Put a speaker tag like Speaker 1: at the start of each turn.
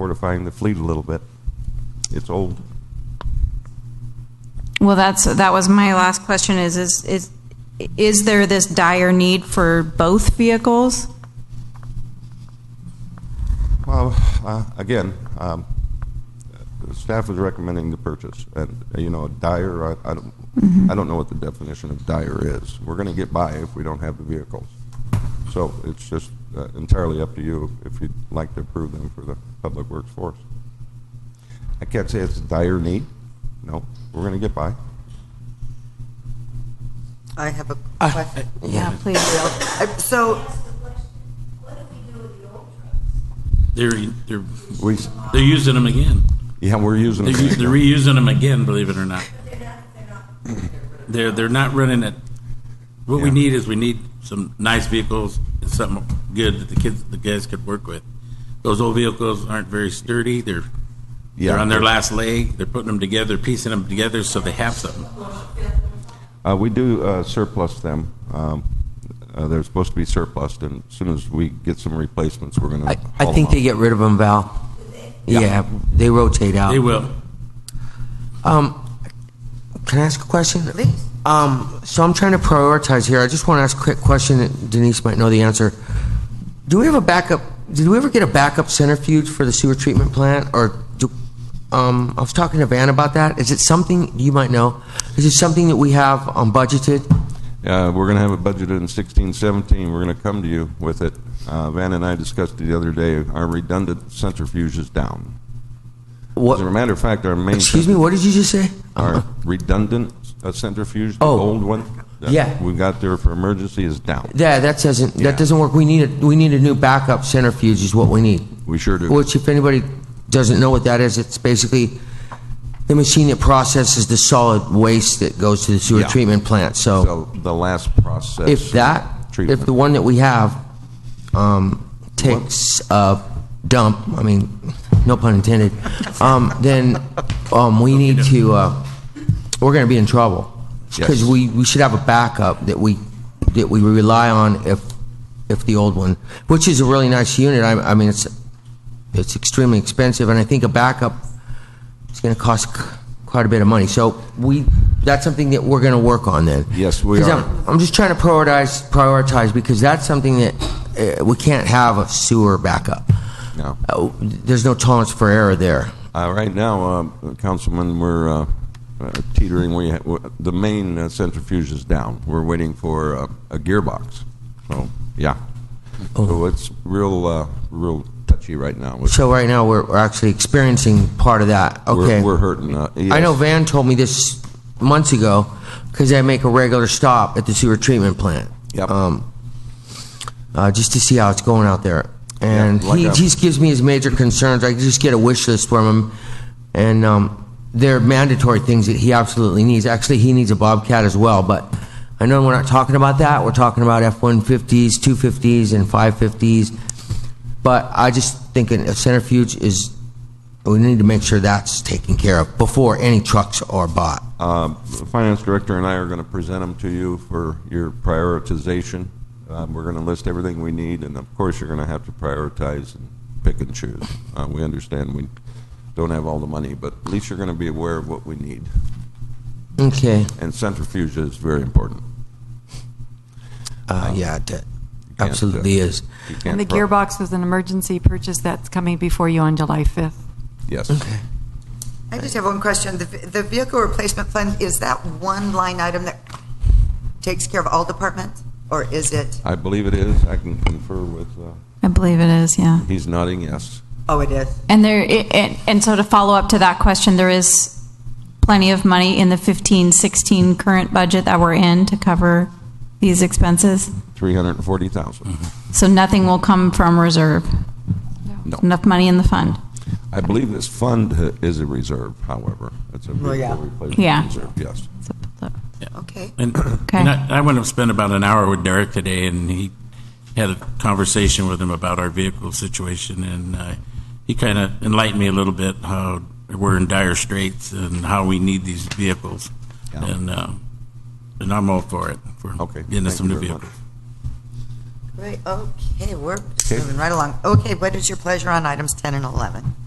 Speaker 1: fortifying the fleet a little bit. It's old.
Speaker 2: Well, that's, that was my last question, is, is, is is there this dire need for both vehicles?
Speaker 1: Well, uh, again, um, uh, staff is recommending the purchase, and, uh, you know, dire, I, I don't, I don't know what the definition of dire is. We're gonna get by if we don't have the vehicles. So it's just uh, entirely up to you if you'd like to approve them for the public works force. I can't say it's a dire need, no, we're gonna get by.
Speaker 3: I have a
Speaker 4: I-
Speaker 3: question.
Speaker 2: Yeah, please.
Speaker 3: I- So,
Speaker 4: They're, they're,
Speaker 1: We, s-
Speaker 4: they're using them again.
Speaker 1: yeah, we're using
Speaker 4: They're,
Speaker 1: them.
Speaker 4: u- they're reusing them again, believe it or not. They're, they're not running it. What we
Speaker 1: Yeah.
Speaker 4: need is we need some nice vehicles and something good that the kids, the guys could work with. Those old vehicles aren't very sturdy. They're, they're
Speaker 1: Yeah.
Speaker 4: on their last leg. They're putting them together, piecing them together so they have something.
Speaker 1: Uh, we do uh, surplus them. Um, uh, they're supposed to be surplused, and as soon as we get some replacements, we're going to.
Speaker 5: I, I think they get rid of them, Val. Yeah, they rotate out.
Speaker 4: They will.
Speaker 5: Um, can I ask a question?
Speaker 3: please,
Speaker 5: Um, so I'm trying to prioritize here. I just want to ask a quick question. that Denise might know the answer. Do we have a backup? Did we ever get a backup centrifuge for the sewer treatment plant? Or do, um, I was talking to Van about that. Is it something you might know? Is it something that we have um, budgeted?
Speaker 1: Uh, we're going to have it budgeted in 16, 17. We're going to come to you with it. Uh, Van and I discussed it the other day. Our redundant centrifuge is down.
Speaker 5: What?
Speaker 1: As a matter of fact, our main.
Speaker 5: Excuse me. What did you just say?
Speaker 1: Our redundant uh, centrifuge, the
Speaker 5: Oh.
Speaker 1: old one. that
Speaker 5: Yeah.
Speaker 1: We got there for emergency is down.
Speaker 5: Yeah, that doesn't
Speaker 1: Yeah.
Speaker 5: that doesn't work. We need a we need a new backup centrifuge is what we need.
Speaker 1: We sure do.
Speaker 5: Which, if anybody doesn't know what that is, it's basically the machine that processes the solid waste that goes to the sewer
Speaker 1: Yeah.
Speaker 5: treatment plant. So,
Speaker 1: So the last process.
Speaker 5: Oh. if that
Speaker 1: treatment.
Speaker 5: if the one that we have um, takes a dump, I mean, no pun intended, um, then um, we need to uh, we're going to be in trouble because
Speaker 1: Yes.
Speaker 5: we, we should have a backup that we that we rely on if if the old one, which is a really nice unit. I, I mean, it's it's extremely expensive, and I think a backup is going to cost c- quite a bit of money. So we that's something that we're going to work on then.
Speaker 1: Yes, we
Speaker 5: 'Cause
Speaker 1: are.
Speaker 5: I'm, I'm just trying to prioritize prioritize because that's something that uh, we can't have a sewer backup.
Speaker 1: No.
Speaker 5: Uh, there's no tolerance for error there.
Speaker 1: Uh, right now, uh, Councilman, we're uh, uh, teetering. We ha- w- the main uh, centrifuge is down. We're waiting for uh, a gearbox. So yeah, so it's real, uh, real touchy right now. It's-
Speaker 5: Oh. So right now we're, we're actually experiencing part of that.
Speaker 1: we're,
Speaker 5: Okay.
Speaker 1: we're hurting. Uh, yes.
Speaker 5: I know Van told me this months ago because I make a regular stop at the sewer treatment plant.
Speaker 1: Yep.
Speaker 5: Um, uh, just to see how it's going out there, and
Speaker 1: Yeah, like
Speaker 5: he
Speaker 1: a-
Speaker 5: just gives me his major concerns. I just get a wish list from him, and um, they're mandatory things that he absolutely needs. Actually, he needs a Bobcat as well, but I know we're not talking about that. We're talking about F one fifties, two fifties, and five fifties. But I just think a centrifuge is. We need to make sure that's taken care of before any trucks are bought.
Speaker 1: Uh, the finance director and I are going to present them to you for your prioritization. Um, we're going to list everything we need, and of course, you're going to have to prioritize and pick and choose. Uh, we understand we don't have all the money, but at least you're going to be aware of what we need.
Speaker 5: Okay.
Speaker 1: And centrifuge is very important.
Speaker 5: Uh, yeah, that
Speaker 1: uh,
Speaker 5: absolutely is.
Speaker 1: You can't
Speaker 6: And the
Speaker 1: throw-
Speaker 6: gearbox is an emergency purchase that's coming before you on July 5th.
Speaker 1: Yes.
Speaker 3: I just have one question. The ve- The vehicle replacement fund, is that one line item that takes care of all departments? Or is it,
Speaker 1: I believe it is. I can confer with, uh,
Speaker 2: I believe it is, yeah.
Speaker 1: he's nodding yes.
Speaker 3: oh, it is?
Speaker 2: And there, it- and, and so to follow up to that question, there is plenty of money in the 15, 16 current budget that we're in to cover these expenses.
Speaker 1: 340,000.
Speaker 6: Mm-hmm.
Speaker 2: So nothing will come from reserve.
Speaker 1: No.
Speaker 2: Enough money in the fund.
Speaker 1: I believe this fund uh, is a reserve, however. It's a
Speaker 3: Well, yeah.
Speaker 1: vehicle
Speaker 2: Yeah.
Speaker 1: replacement reserve, yes.
Speaker 2: So- so-
Speaker 3: Okay.
Speaker 4: And, and I, I went and spent about an hour with Derek today, and he had a conversation with him about our vehicle situation, and uh, he kind of enlightened me a little bit how we're in dire straits and how we need these vehicles,
Speaker 1: Yeah.
Speaker 4: and uh, and I'm all for it for
Speaker 1: Okay,
Speaker 4: getting
Speaker 1: thank
Speaker 4: us some
Speaker 1: you
Speaker 4: new
Speaker 1: very much.
Speaker 4: vehicles.
Speaker 3: Right, okay, we're moving right along. Okay, what is your pleasure on items 10 and 11?